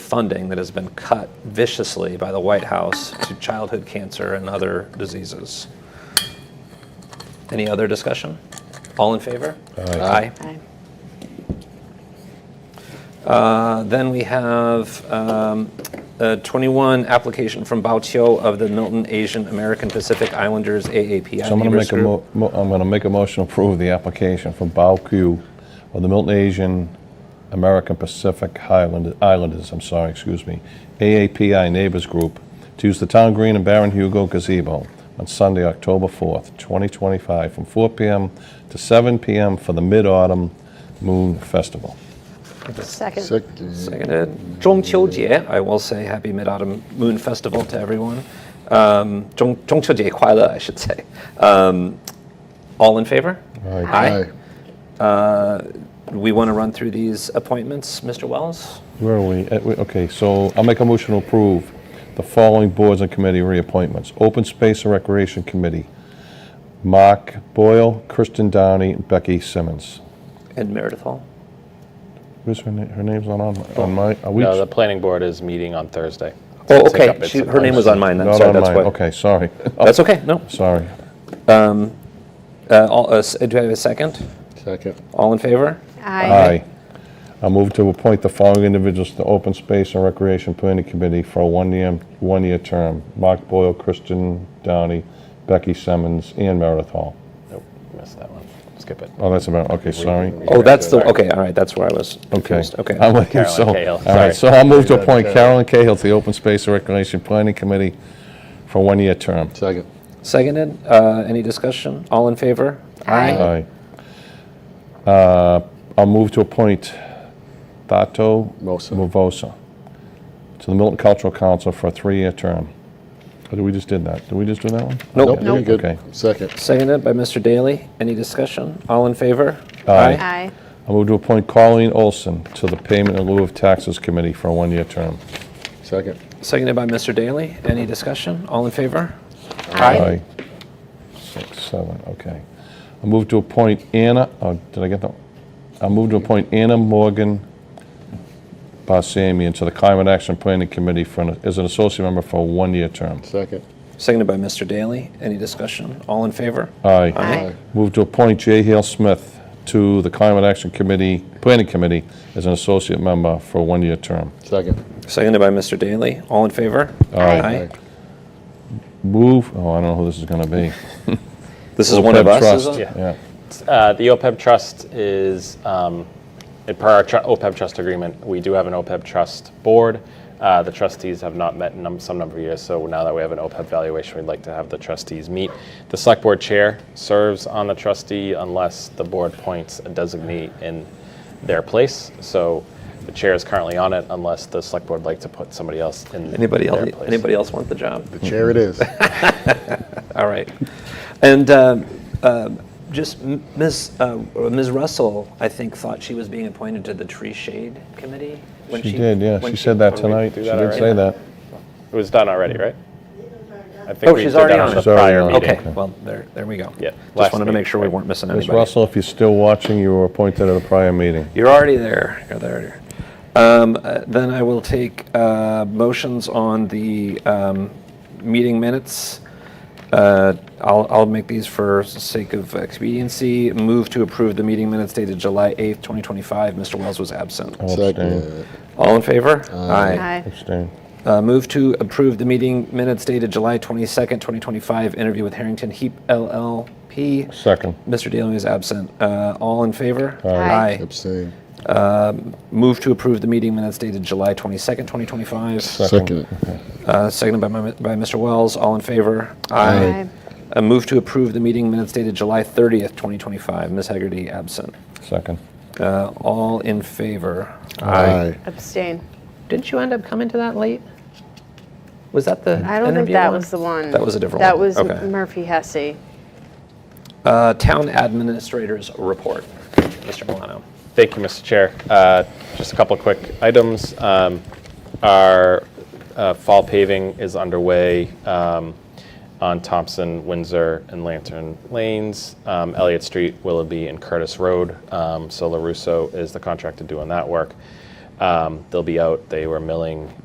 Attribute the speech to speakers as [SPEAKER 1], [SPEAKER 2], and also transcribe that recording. [SPEAKER 1] funding that has been cut viciously by the White House to childhood cancer and other diseases. Any other discussion? All in favor? Aye.
[SPEAKER 2] Aye.
[SPEAKER 1] Uh, Then we have um, a 21 application from Bautio of the Milton Asian American Pacific Islanders AAPI
[SPEAKER 3] So I'm going to
[SPEAKER 1] Neighbors
[SPEAKER 3] make a,
[SPEAKER 1] Group.
[SPEAKER 3] mo- mo- I'm going to make a motion to approve the application from Bao Q of the Milton Asian American Pacific Highland- Islanders, I'm sorry, excuse me, AAPI Neighbors Group, to use the Town Green and Baron Hugo gazebo on Sunday, October 4th, 2025, from 4 PM to 7 PM for the Mid-Autumn Moon Festival.
[SPEAKER 2] Second.
[SPEAKER 1] Second. Seconded. Zhongqiujie, I will say Happy Mid Autumn Moon Festival to everyone. Um, 中-中秋节快乐, I should say. Um, all in favor? Aye. Uh, We want to run through these appointments, Mr. Wells?
[SPEAKER 3] Where are we? Eh, we- Okay, so I'll make a motion to approve the following boards and committee reappointments. Open Space and Recreation Committee, Mark Boyle, Kristen Downey, and Becky Simmons.
[SPEAKER 1] And Meredith Hall?
[SPEAKER 3] Who's her name? Her name's not on, on my, are we?
[SPEAKER 4] No, the planning board is meeting on Thursday.
[SPEAKER 1] Oh,
[SPEAKER 4] Take
[SPEAKER 1] okay.
[SPEAKER 4] up its
[SPEAKER 1] She, her name was on mine then.
[SPEAKER 3] Not
[SPEAKER 1] Sorry,
[SPEAKER 3] on
[SPEAKER 1] that's
[SPEAKER 3] mine.
[SPEAKER 1] why.
[SPEAKER 3] Okay, sorry. Oh,
[SPEAKER 1] That's okay. No.
[SPEAKER 3] Sorry. Oh.
[SPEAKER 1] Uh, all, uh, s- do I have a second?
[SPEAKER 5] Second.
[SPEAKER 1] All in favor?
[SPEAKER 3] Aye.
[SPEAKER 2] Aye.
[SPEAKER 3] I move to appoint the following individuals to Open Space and Recreation Planning Committee for a one-year, one-year term. Mark Boyle, Kristen Downey, Becky Simmons, and Meredith Hall.
[SPEAKER 4] Nope, missed that one. Skip it.
[SPEAKER 3] Oh, that's about, okay, sorry.
[SPEAKER 1] Oh, that's the, okay, all right, that's where I was
[SPEAKER 3] Okay. Um,
[SPEAKER 1] confused. Okay.
[SPEAKER 3] I'm with you,
[SPEAKER 4] Carolyn
[SPEAKER 3] so,
[SPEAKER 4] Cahill,
[SPEAKER 3] all right,
[SPEAKER 4] sorry.
[SPEAKER 3] so I'll move to
[SPEAKER 5] Yeah,
[SPEAKER 3] appoint Carolyn
[SPEAKER 5] Carolyn.
[SPEAKER 3] Cahill to the Open Space and Recreation Planning Committee for a one-year term.
[SPEAKER 5] Second.
[SPEAKER 1] Seconded. Uh, any discussion? All in favor?
[SPEAKER 2] Aye.
[SPEAKER 3] Aye. Uh, I'll move to appoint Tato
[SPEAKER 5] Mosa.
[SPEAKER 3] Mavosa to the Milton Cultural Council for a three-year term. Or did we just did that? Did we just do that one?
[SPEAKER 1] Nope.
[SPEAKER 5] Nope, you're
[SPEAKER 3] Okay.
[SPEAKER 5] good. Second.
[SPEAKER 1] Seconded by Mr. Daly. Any discussion? All in favor?
[SPEAKER 3] Aye.
[SPEAKER 2] Aye.
[SPEAKER 3] I'll move to appoint Colleen Olson to the Payment in lieu of Taxes Committee for a one-year term.
[SPEAKER 5] Second.
[SPEAKER 1] Seconded by Mr. Daly. Any discussion? All in favor?
[SPEAKER 2] Aye.
[SPEAKER 3] Six, seven, okay. I move to appoint Anna, oh, did I get that? I move to appoint Anna Morgan Bassamian to the Climate Action Planning Committee for, an- as an associate member for a one-year term.
[SPEAKER 5] Second.
[SPEAKER 1] Seconded by Mr. Daly. Any discussion? All in favor?
[SPEAKER 3] Aye.
[SPEAKER 2] Aye.
[SPEAKER 3] Move to appoint Jay Hale Smith to the Climate Action Committee, Planning Committee, as an associate member for a one-year term.
[SPEAKER 5] Second.
[SPEAKER 1] Seconded by Mr. Daly. All in favor?
[SPEAKER 2] Aye.
[SPEAKER 3] Move, oh, I don't know who this is gonna be.
[SPEAKER 1] This is one of us, is
[SPEAKER 3] Trust,
[SPEAKER 1] it?
[SPEAKER 4] Yeah.
[SPEAKER 3] Yeah.
[SPEAKER 4] Uh, The OPEB trust is, um, it- per our tru- OPEB trust agreement, we do have an OPEB trust board. Uh, The trustees have not met in num- some number of years, so now that we have an OPEB valuation, we'd like to have the trustees meet. The select board chair serves on the trustee unless the board points a designee in their place. So the chair is currently on it unless the select board like to put somebody else in their
[SPEAKER 1] Anybody else,
[SPEAKER 4] place.
[SPEAKER 1] anybody else want the job?
[SPEAKER 5] The chair it is.
[SPEAKER 1] All right. And um, uh, just m- Ms., uh, Ms. Russell, I think, thought she was being appointed to the Tree Shade Committee. when
[SPEAKER 3] She did, yeah,
[SPEAKER 1] when
[SPEAKER 3] she said that
[SPEAKER 4] when we
[SPEAKER 3] tonight.
[SPEAKER 4] do
[SPEAKER 3] She
[SPEAKER 4] that
[SPEAKER 3] did
[SPEAKER 4] already?
[SPEAKER 3] say that.
[SPEAKER 4] It was done already, right? I think
[SPEAKER 1] Oh,
[SPEAKER 4] we
[SPEAKER 1] she's
[SPEAKER 4] did
[SPEAKER 1] already
[SPEAKER 4] that
[SPEAKER 1] on
[SPEAKER 4] the
[SPEAKER 3] it. She's already
[SPEAKER 4] prior
[SPEAKER 3] on it.
[SPEAKER 4] meeting.
[SPEAKER 1] Okay, well, there, there we go.
[SPEAKER 4] Yeah,
[SPEAKER 1] Just
[SPEAKER 4] last
[SPEAKER 1] wanted to make
[SPEAKER 4] meeting,
[SPEAKER 1] sure we
[SPEAKER 4] right.
[SPEAKER 1] weren't missing
[SPEAKER 3] Ms.
[SPEAKER 1] anybody.
[SPEAKER 3] Russell, if you're still watching, you were appointed at a prior meeting.
[SPEAKER 1] You're already there. You're there. Um, uh, Then I will take uh, motions on the um, meeting minutes. Uh, I'll I'll make these for sake of expediency. Move to approve the meeting minutes dated July 8th, 2025. Mr. Wells was absent.
[SPEAKER 3] I'll abstain.
[SPEAKER 5] Second.
[SPEAKER 1] All in favor?
[SPEAKER 2] Aye.
[SPEAKER 3] Abstain.
[SPEAKER 1] Uh, Move to approve the meeting minutes dated July 22nd, 2025. Interview with Harrington Heap LLP.
[SPEAKER 3] Second.
[SPEAKER 1] Mr. Daly is absent. Uh, All in favor?
[SPEAKER 2] Aye.
[SPEAKER 5] Abstain.
[SPEAKER 1] Move to approve the meeting minutes dated July 22nd, 2025.
[SPEAKER 5] Second.
[SPEAKER 1] Uh, Seconded by my- by Mr. Wells. All in favor?
[SPEAKER 2] Aye.
[SPEAKER 1] Uh, Move to approve the meeting minutes dated July 30th, 2025. Ms. Hegarty absent.
[SPEAKER 3] Second.
[SPEAKER 1] Uh, All in favor?
[SPEAKER 5] Aye.
[SPEAKER 2] Abstain.
[SPEAKER 1] Didn't you end up coming to that late? Was that the
[SPEAKER 2] I don't think
[SPEAKER 1] interview
[SPEAKER 2] that
[SPEAKER 1] one?
[SPEAKER 2] was the one.
[SPEAKER 1] That was a different
[SPEAKER 2] That
[SPEAKER 1] one.
[SPEAKER 2] was
[SPEAKER 1] Okay.
[SPEAKER 2] Murphy Hesse.
[SPEAKER 1] Uh, Town Administrator's Report. Mr. Milano.
[SPEAKER 4] Thank you, Mr. Chair. Uh, Just a couple of quick items. Um, Our uh, fall paving is underway um, on Thompson, Windsor, and Lantern Lanes, um, Elliott Street, Willoughby, and Curtis Road. Um, So LaRusso is the contractor doing that work. Um, Um, they'll be out. They were milling